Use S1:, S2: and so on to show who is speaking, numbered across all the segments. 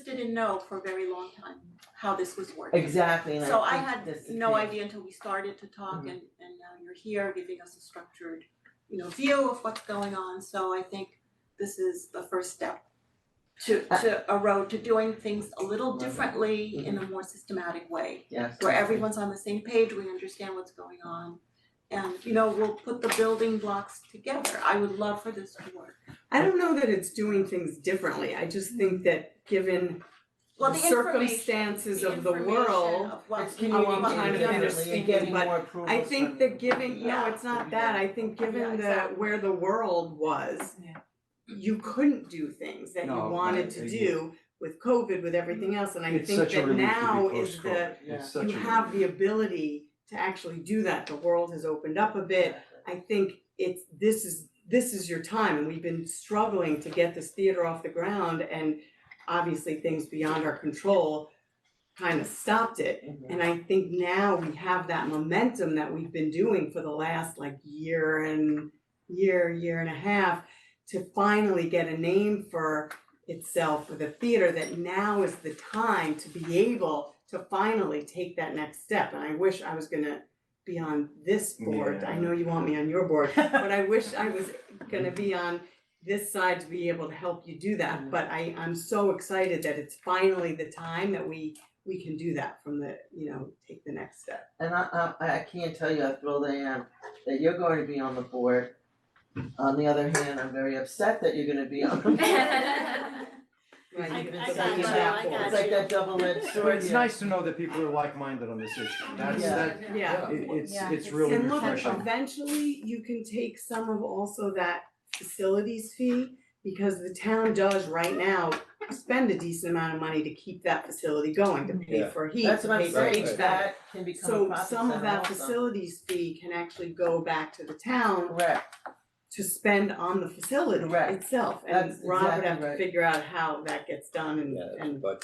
S1: didn't know for a very long time how this was working.
S2: Exactly, and
S1: So I
S2: I
S1: had
S2: think this is
S1: no
S2: the-
S1: idea until we started to talk
S2: Mhm.
S1: and and now you're here giving us a structured, you know, view of what's going on, so I think this is the first step to
S2: Uh, Mm-hmm.
S1: to a road to doing things a little differently in a more systematic way,
S2: Yes.
S1: where everyone's on the same page, we understand what's going on. And you know, we'll put the building blocks together, I would love for this to work.
S3: I don't know that it's doing things differently, I just think that given
S1: Well,
S3: the
S1: the information,
S3: circumstances
S1: the
S3: of the
S1: information
S3: world,
S1: of what's
S3: I
S1: going
S3: want
S1: on.
S3: to kind of
S1: Yeah.
S3: understand,
S2: And getting
S3: but
S2: more approvals
S3: I think
S2: from-
S3: that given, no,
S1: Yeah.
S3: it's not that, I think
S1: Yeah,
S3: given the,
S1: exactly.
S3: where the world was,
S4: Yeah.
S3: you couldn't do things that you
S5: No,
S3: wanted
S5: right,
S3: to
S5: they-
S3: do with COVID, with everything else, and I
S5: It's
S3: think
S5: such a
S3: that
S5: relief
S3: now
S5: to be
S3: is the,
S5: post-COVID,
S2: yeah.
S5: it's such a
S3: you
S5: relief.
S3: have the ability to actually do that, the world has opened up a bit, I think it's, this is, this is your time, and we've been struggling to get this theater off the ground, and obviously things beyond our control kind of stopped it.
S2: Mhm.
S3: And I think now we have that momentum that we've been doing for the last like year and year, year and a half to finally get a name for itself for the theater that now is the time to be able to finally take that next step. And I wish I was gonna be on this board. I
S5: Yeah.
S3: know you want me on your board, but I wish I was gonna be on this side to be able to help you do that, but I, I'm so excited that it's finally the time that we, we can do that from the, you know, take the next step.
S2: And I I I can't tell you how thrilled I am that you're going to be on the board. On the other hand, I'm very upset that you're gonna be on the board.
S3: Right,
S1: I-
S3: you can
S1: I
S3: take
S1: got
S3: it
S1: you,
S3: back
S1: I
S3: forward.
S1: got
S2: It's like that double edged
S5: But
S2: sword
S5: it's
S2: here.
S5: nice to know that people are like-minded on this issue, that's,
S2: Yeah.
S5: that,
S3: Yeah.
S5: it- it's,
S4: Yeah.
S5: it's really
S3: And look,
S5: refreshing.
S3: eventually you can take some of also that facilities fee, because the town does right now spend a decent amount of money to keep that facility going, to pay
S5: Yeah.
S3: for heat,
S2: That's
S3: to
S2: what I'm
S3: pay for
S2: saying,
S3: HVAC.
S2: that can become a
S3: So
S2: profit
S3: some of
S2: center
S3: that
S2: also.
S3: facilities fee can actually go back to the town
S2: Correct,
S3: to spend on the facility
S2: Correct.
S3: itself. And
S2: That's
S3: Rob would
S2: exactly
S3: have to
S2: right.
S3: figure out how that gets done and and
S2: well,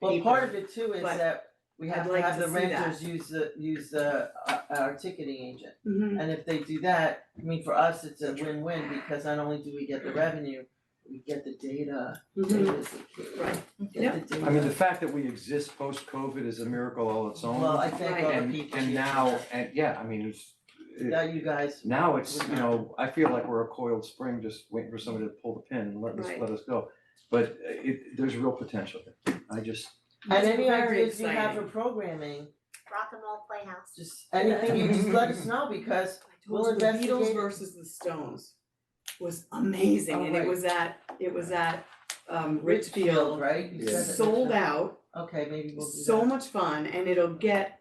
S3: People.
S2: part of it too is
S3: But
S2: that we have
S3: I'd
S2: to
S3: like
S2: have
S3: to
S2: the
S3: see that.
S2: renters use the, use the, uh, our ticketing agent.
S3: Mhm.
S2: And if they do that, I mean, for us, it's a win-win because not only do we get the revenue, we get the data,
S3: Mhm.
S2: data is the key.
S3: Right.
S2: Get the data.
S5: I mean, the fact that we exist post-COVID is a miracle all its own.
S2: Well, I thank all the
S5: And,
S2: people.
S5: and now, and yeah, I mean, it's, it-
S2: Now you guys.
S5: now it's, you know, I feel like we're a coiled spring just waiting for somebody to pull the pin and let us,
S3: Right.
S5: let us go. But uh, it, there's real potential there, I just,
S2: And any
S3: Very
S2: ideas you have for
S3: exciting.
S2: programming,
S6: Rock and Roll Playhouse.
S2: just anything, you just let us know because
S3: I told
S2: We'll
S3: you, the Beatles
S2: investigate it.
S3: versus the Stones was amazing and it
S2: Alright.
S3: was at, it was at um
S2: Richfield,
S3: Richfield,
S2: right? You said that
S3: sold
S2: Richfield.
S3: out,
S2: Okay, maybe we'll do
S3: so
S2: that.
S3: much fun and it'll get a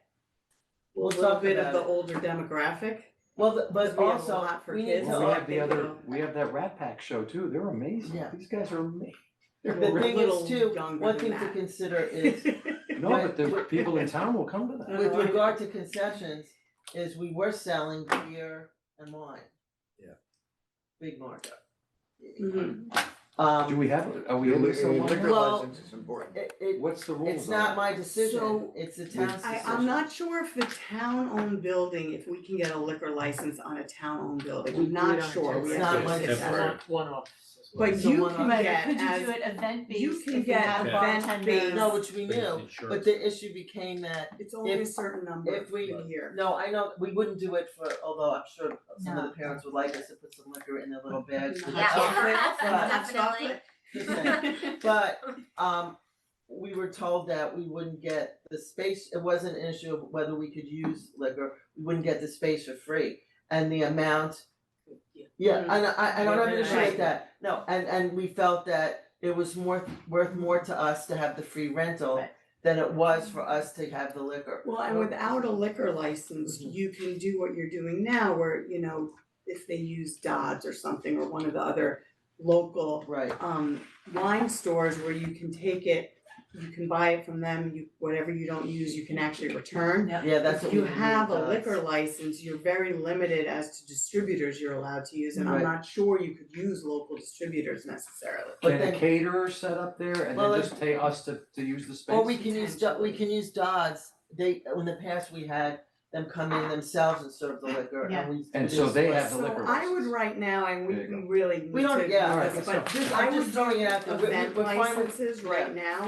S2: We'll
S3: little
S2: talk
S3: bit of
S2: about
S3: the
S2: it.
S3: older demographic.
S2: Well, the- but
S3: we have a
S2: also,
S3: lot for
S2: we need
S3: kids.
S2: to.
S5: well, we
S3: all
S5: have the
S3: people
S5: other,
S3: know.
S5: we have that Rat Pack show too, they're amazing,
S2: Yeah.
S5: these guys are amazing.
S2: The
S3: We're a
S2: thing
S3: little
S2: is too,
S3: younger
S2: one
S3: than
S2: thing to
S3: that.
S2: consider is
S5: No, but the people in town will come to that.
S2: with
S3: Uh-huh.
S2: regard to concessions, is we were selling beer and wine.
S7: Yeah.
S2: Big markup.
S3: Mhm.
S5: Do
S2: Um,
S5: we have, are we in this somewhere?
S2: Well-
S7: is important.
S2: it, it,
S5: What's the rules on
S2: it's not
S5: it?
S2: my decision,
S3: So-
S2: it's the town's
S3: I,
S2: decision.
S3: I'm not sure if the town-owned building, if we can get a liquor license on a town-owned building, I'm not sure.
S2: It's
S3: We have
S2: not
S3: to
S2: my
S3: look at that.
S2: decision.
S4: One off.
S3: But
S2: So
S3: you
S2: one
S3: can
S2: on-
S3: get
S4: Could you do
S3: as,
S4: it event based?
S3: you can get event-based,
S2: No, which we knew, but the issue became that,
S3: it's only a
S2: if-
S3: certain number
S2: if we-
S3: a year.
S2: no, I know, we wouldn't do it for, although I'm sure some of
S4: No.
S2: the parents would like us to put some liquor in their little bags
S3: Mm-hmm.
S2: with
S6: Yeah.
S2: chocolate,
S6: Yeah.
S2: but- But, um, we were told that we wouldn't get the space, it wasn't an issue of whether we could use liquor, we wouldn't get the space for free. And the amount Mm-hmm. Yeah,
S3: Mhm.
S2: and I I don't
S3: Right,
S2: have an issue
S3: right.
S2: with that, no, and and we felt that it was more worth more to us to have the free rental
S4: Right.
S2: than it was for us to have the liquor.
S3: Well, and without a liquor license,
S5: Mm-hmm.
S2: Mhm.
S3: you can do what you're doing now where, you know, if they use Dodds or something or one of the other local
S2: Right,
S3: um wine stores where you can take it, you can buy it from them, you, whatever you don't use, you can actually return.
S2: yeah, that's what
S3: If
S2: we
S3: you
S2: didn't
S3: have a
S2: realize.
S3: liquor license, you're very limited as to distributors you're allowed to use, and I'm
S2: Right.
S3: not sure you could use local distributors necessarily.
S2: But
S5: Can a
S2: then,
S5: caterer set up there and
S2: Well,
S5: then just pay us to to use the space?
S2: or we can use, Do- we can use Dodds, they, in the past, we had them come in themselves and serve the liquor
S4: Yeah.
S2: and we.
S5: And so they have the
S3: So
S5: liquor
S3: I would
S5: license.
S3: right now, and we
S5: There you
S3: really need to,
S2: We don't- yeah,
S3: do
S5: alright,
S3: this,
S5: that's
S3: but just, I
S2: I'm
S3: would
S2: just throwing it out there, we
S3: event
S2: we- we're fine with
S3: licenses right now